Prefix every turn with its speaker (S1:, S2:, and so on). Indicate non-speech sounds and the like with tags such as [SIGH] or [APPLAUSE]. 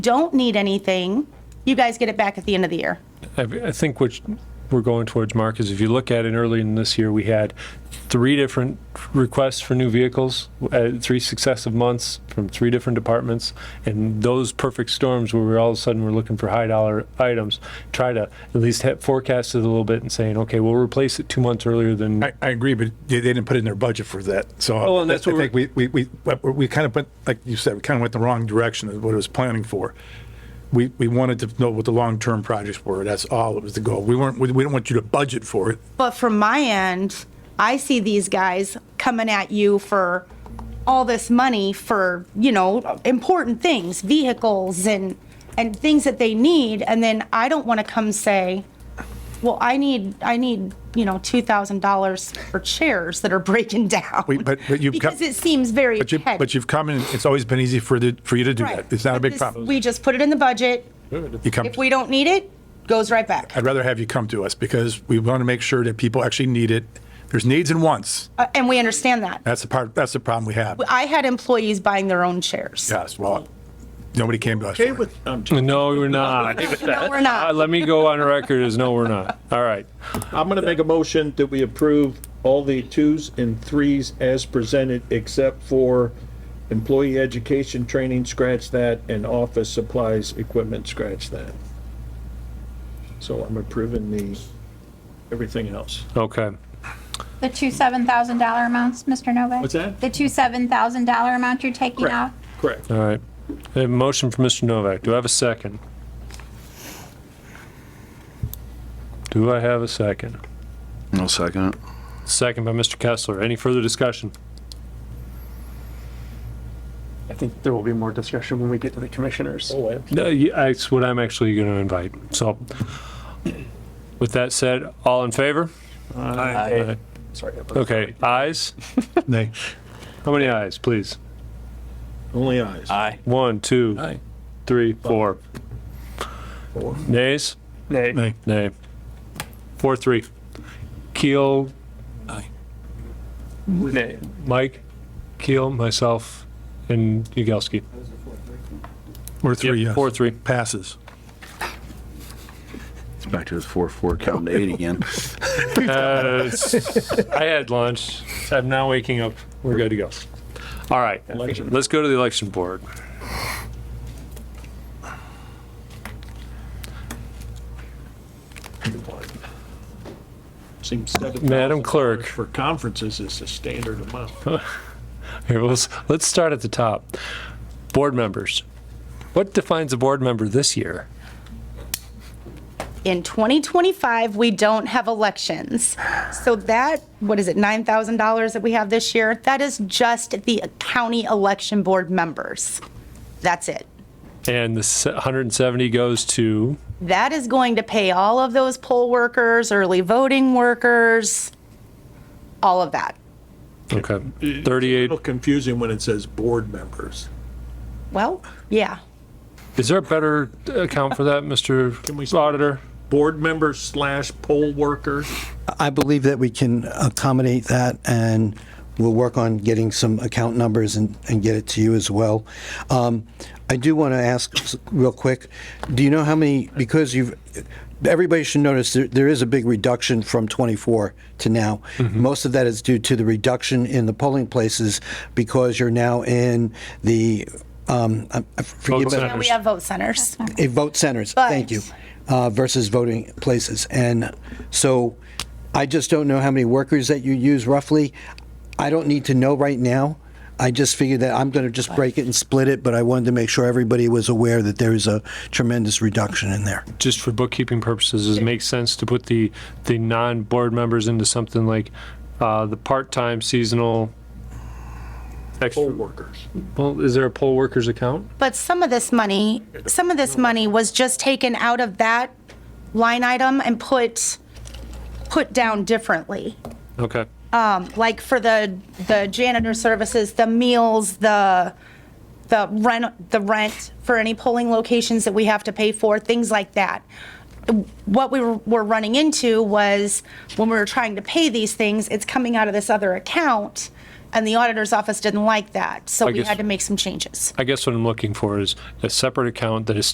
S1: don't need anything, you guys get it back at the end of the year.
S2: I I think what we're going towards, Mark, is if you look at it early in this year, we had three different requests for new vehicles, uh, three successive months from three different departments, and those perfect storms where we're all of a sudden we're looking for high dollar items, try to at least have forecast it a little bit and saying, okay, we'll replace it two months earlier than.
S3: I, I agree, but they they didn't put it in their budget for that, so.
S2: Oh, and
S3: I-
S2: that's
S3: I
S2: what
S3: think we, we, we, but we kind of went, like you said, we kind of went the wrong direction of what it was planning for. We, we wanted to know what the long-term projects were, that's all, it was the goal. We weren't, we we didn't want you to budget for it.
S1: But from my end, I see these guys coming at you for all this money for, you know, important things, vehicles and, and things that they need. And then I don't want to come say, well, I need, I need, you know, $2,000 for chairs that are [LAUGHS] breaking down.
S3: We- but- but you've got-
S1: Because it seems very
S3: But you,
S1: petty.
S3: but you've come and it's always been easy for the, for you to do
S1: Right.
S3: that. It's not a
S1: But
S3: big
S1: this-
S3: problem.
S1: We just put it in the budget.
S3: You come,
S1: If we don't need it, goes right back.
S3: I'd rather have you come to us because we want to make sure that people actually need it. There's needs and wants.
S1: Uh, And we understand that.
S3: That's the part, that's the problem we have.
S1: I had employees buying their own chairs.
S3: Yes, well, nobody came to us. for
S4: Okay
S3: it.
S4: with, um, I'm,
S2: No, we're not.
S1: No, we're
S2: Uh,
S1: not.
S2: Let me go on record as no, we're not. All right.
S4: I'm gonna make a motion that we approve all the twos and threes as presented, except for employee education training, scratch that, and office supplies, equipment, scratch that. So I'm approving the, everything else.
S2: Okay.
S5: The two seven thousand dollar amounts, Mr. Novak?
S4: What's that?
S5: The two seven thousand dollar amount you're taking
S4: Correct.
S5: off?
S4: Correct.
S2: All right. I have a motion for Mr. Novak. Do I have a second? Do I have a second?
S6: I'll second it.
S2: Second by Mr. Kessler. Any further discussion?
S7: I think there will be more discussion when we get to the commissioners.
S4: Oh, and
S2: No, y- That's what I'm actually going to invite. So with that said, all in favor? Aye.
S7: Sorry. that was-
S2: Okay, ayes?
S3: Nay.
S2: How many ayes, please?
S4: Only eyes.
S2: One, two, three, four.
S4: Four.
S2: Nays?
S7: Nay.
S3: Nay.
S2: Nay. Four, three. Keel,
S7: Nay.
S2: Mike, Keel, myself, and Yagowski.
S3: We're three, yes.
S2: Four, three.
S3: Passes.
S6: It's back to his four, four, counting to eight again.
S2: [LAUGHS] Uh, it's- I had lunch. I'm now waking up. We're good to go. All right, let's go to the election board.
S4: Seems seven
S2: Madam
S4: thousand
S2: Clerk.
S4: dollars For conferences is the standard amount.
S2: Here, let's, let's start at the top. Board members. What defines a board member this year?
S1: In 2025, we don't have elections. So that, what is it, $9,000 that we have this year? That is just the county election board members. That's it.
S2: And the se- 170 goes to,
S1: That is going to pay all of those poll workers, early voting workers, all of that.
S2: okay,
S4: A
S2: 38.
S4: little confusing when it says board members.
S1: Well, yeah.
S2: Is there a better account for that,
S4: we-
S2: Mr. Auditor?
S4: Board member slash poll worker.
S8: I believe that we can accommodate that, and we'll work on getting some account numbers and, and get it to you as well. Um, I do want to ask s- real quick, do you know how many, because you've, everybody should notice there, there is a big reduction from 24 to now. Most of that is due to the reduction in the polling places because you're now in the, um, I- I forget.
S2: Vote
S8: but-
S2: centers.
S1: We have vote centers.
S8: eh, vote centers, thank you, uh, versus voting places. And so I just don't know how many workers that you use roughly. I don't need to know right now. I just figured that I'm going to just break it and split it, but I wanted to make sure everybody was aware that there is a tremendous reduction in there.
S2: just for bookkeeping purposes, does it make sense to put the, the non-board members into something like uh, the part-time seasonal?
S4: poll
S2: Extra,
S4: workers.
S2: well, is there a poll workers account?
S1: But some of this money, some of this money was just taken out of that line item and put, put down differently.
S2: Okay,
S1: Like for the, the janitor services, the meals, the, the rent, the rent for any polling locations that we have to pay for, things like that. What we were were running into was when we were trying to pay these things, it's coming out of this other account And the auditor's office didn't like that, so
S2: I
S1: we
S2: guess-
S1: had to make some changes.
S2: I guess what I'm looking for is a separate account that is